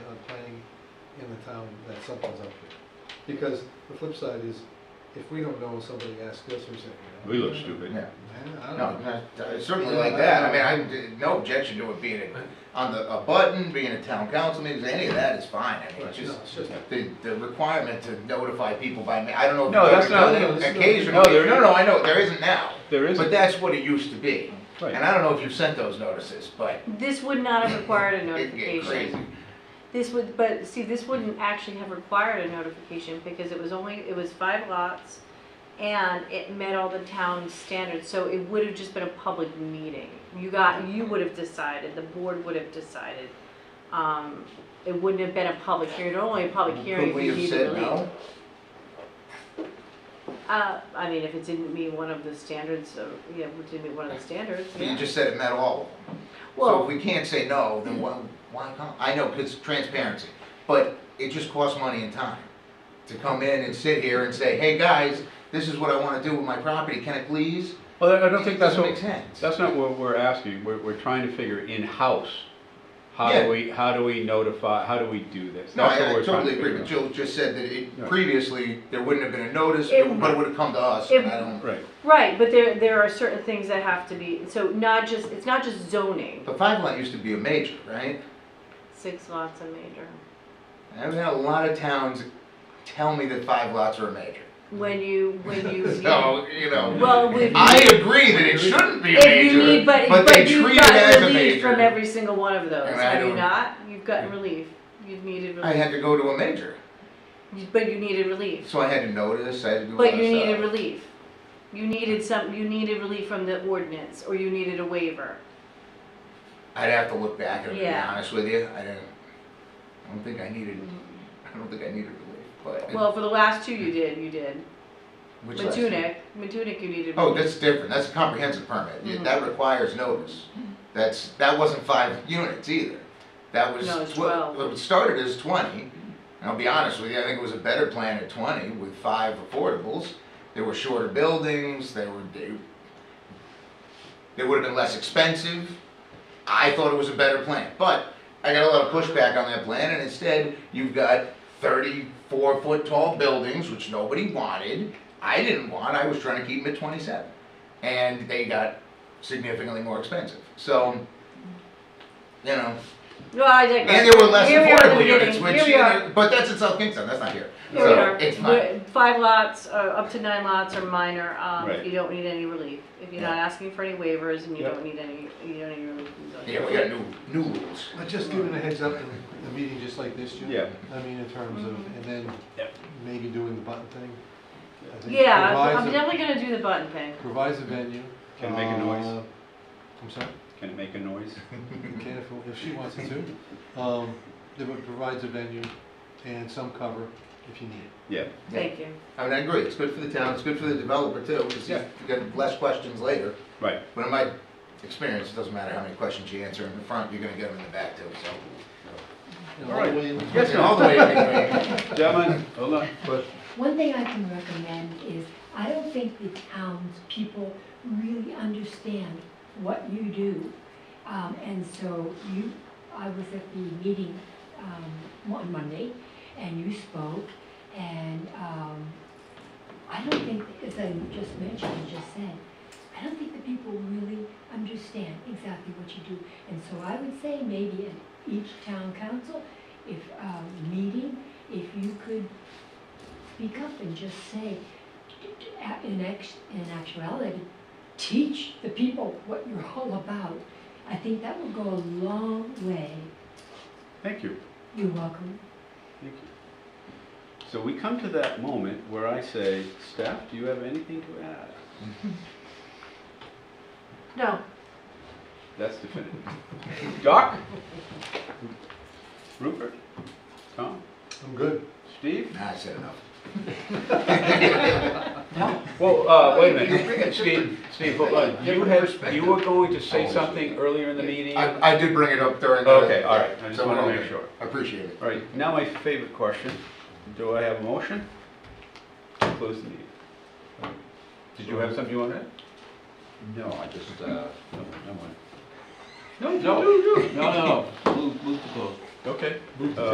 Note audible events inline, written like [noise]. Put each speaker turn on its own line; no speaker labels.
uh, the town that something's up here. Because the flip side is, if we don't know, somebody asks us, we say,
We look stupid.
Yeah,
"Man, I
no,
don't know.
not- uh, certainly like that, I mean, I, d- no objection to it being a- on the, a button, being a town council meeting, any of that is fine, I mean,
Right,
it's
no,
just
it's just-
the, the requirement to notify people by, ma- I don't know. if
No,
you've
that's
ever
not-
done it.
no, that's not-
Occasionally,
No, there
no, no, I know, there isn't now.
There isn't.
But that's what it used to be.
Right.
And I don't know if you've sent those notices, but
This would
[laughs]
not have required a
it'd get crazy.
notification. This would, but see, this wouldn't actually have required a notification because it was only, it was five lots and it met all the town standards, so it would have just been a public meeting. You got, you would have decided, the board would have decided. Um, it wouldn't have been a public hearing, only a public hearing
Could
if
we
you
have
needed
said
relief.
no?
Uh, I mean, if it didn't meet one of the standards, uh, yeah, if it didn't meet one of the standards,
But
yeah.
You just said it met all of them. So if
Well,
we can't say no, then why, why come? I know, because transparency, but it just costs money and time to come in and sit here and say, hey, guys, this is what I wanna do with my property, can I please?
Well, I don't think that's
Doesn't
what,
make sense.
that's not what we're asking, we're, we're trying to figure in-house, how
Yeah.
do we, how do we notify, how do we do this?
No,
That's
I
what
I
we're trying to
totally agree, but
figure
Jill just said that
Yeah.
it, previously, there wouldn't have been a notice,
It
but it would've come to us,
it-
and I don't.
out. Right,
right, but there, there are certain things that have to be, so not just, it's not just zoning,
But five lot used to be a major, right?
six lots a major.
I've had a lot of towns tell me that five lots are a major.
When you, when
[laughs]
you,
So, you know.
well, if
I
you,
agree that it shouldn't be a
if
major,
you need, but,
they
but you've
treat it as
gotten
a
relief from
major.
every single one of those,
And I
have you
don't-
not? You've gotten relief, you've needed
I
relief,
had to go to a major,
You- but you needed relief,
so I had to notice. I had to do. a lot
but
of
you needed
stuff.
relief. You needed some, you needed relief from the ordinance, or you needed a waiver.
I'd have to look back and
Yeah.
be honest with you. I didn't. I don't think I needed. I don't think I needed relief, but
Well, for the last two you did, you did.
Hmm. which last-
Matunic, Matunic you needed.
Oh, that's different. That's a comprehensive permit. Yeah,
Mhm.
That requires notice. That's that wasn't five units either. That was
No, it's
twe-
12.
It started as twenty. And I'll be honest with you. I think it was a better plan at twenty with five affordables. There were shorter buildings. They were they, they would have been less expensive. I thought it was a better plan, but I got a lot of pushback on that plan, and instead you've got 34 foot tall buildings, which nobody wanted. I didn't want. I was trying to keep them at 27, and they got significantly more expensive. So, you know,
No, I
and
digress.
there were less
Here we are at the
affordable units,
beginning.
which
Here we are.
but that's in South Kingston. That's not here.
Here we
so
are.
it's fine.
We're- Five lots, uh, up to nine lots are minor, um,
Right.
if you don't need any relief. If you're not asking for any waivers and you
Yeah.
don't need any, you don't need relief from zoning.
Yeah, we got new new rules.
But just giving a heads up in a meeting just like this, Jim.
Yeah.
I mean, in terms of, and then
Yep.
maybe doing the button thing. I think
Yeah,
provides
I'm
a-
definitely gonna do the button thing.
Provides a venue.
Can it make a noise?
Uh, I'm sorry?
can it make a noise?
You can if, if she wants it to. Um, it would- provides a venue and some cover if you need it.
Yeah,
Yeah.
Thank you.
I mean, I agree, it's good for the town, it's good for the developer too, because you
Yeah.
get less questions later.
right,
But in my experience, it doesn't matter how many questions you answer in the front, you're gonna get them in the back too, so.
You know,
All right.
the way in-
Yes,
And All the way in between.
gentlemen, hold on,
One thing I can recommend is, I don't think the towns people really understand what you do. Um, and so you, I was at the meeting, um, on Monday, and you spoke, and, um, I don't think, as I just mentioned, and just said, I don't think the people really understand exactly what you do. And so I would say maybe at each town council, if, um, meeting, if you could speak up and just say, a- in act, in actuality, teach the people what you're all about. I think that will go a long way.
thank you.
You're welcome.
Thank you. So we come to that moment where I say, staff, do you have anything to add?
No,
That's definitive. Doc? Rupert? Tom?
I'm good.
Steve?
Nah, I said enough.
Well, uh, wait a
bring it-
minute, Steve, Steve, hold on. you had, you were going to say
Always.
something earlier in the meeting?
Oh, I, I did bring it up during the.
Okay, all right, I just
So
wanted to
we're
make
okay.
sure.
I Appreciate it.
All right, now my favorite question, do I have a motion? Close the meeting. Did you have something you wanted?
No, I just, uh.
No, no,
No, no, no, no, move, move to close.
okay.
Move to
Uh,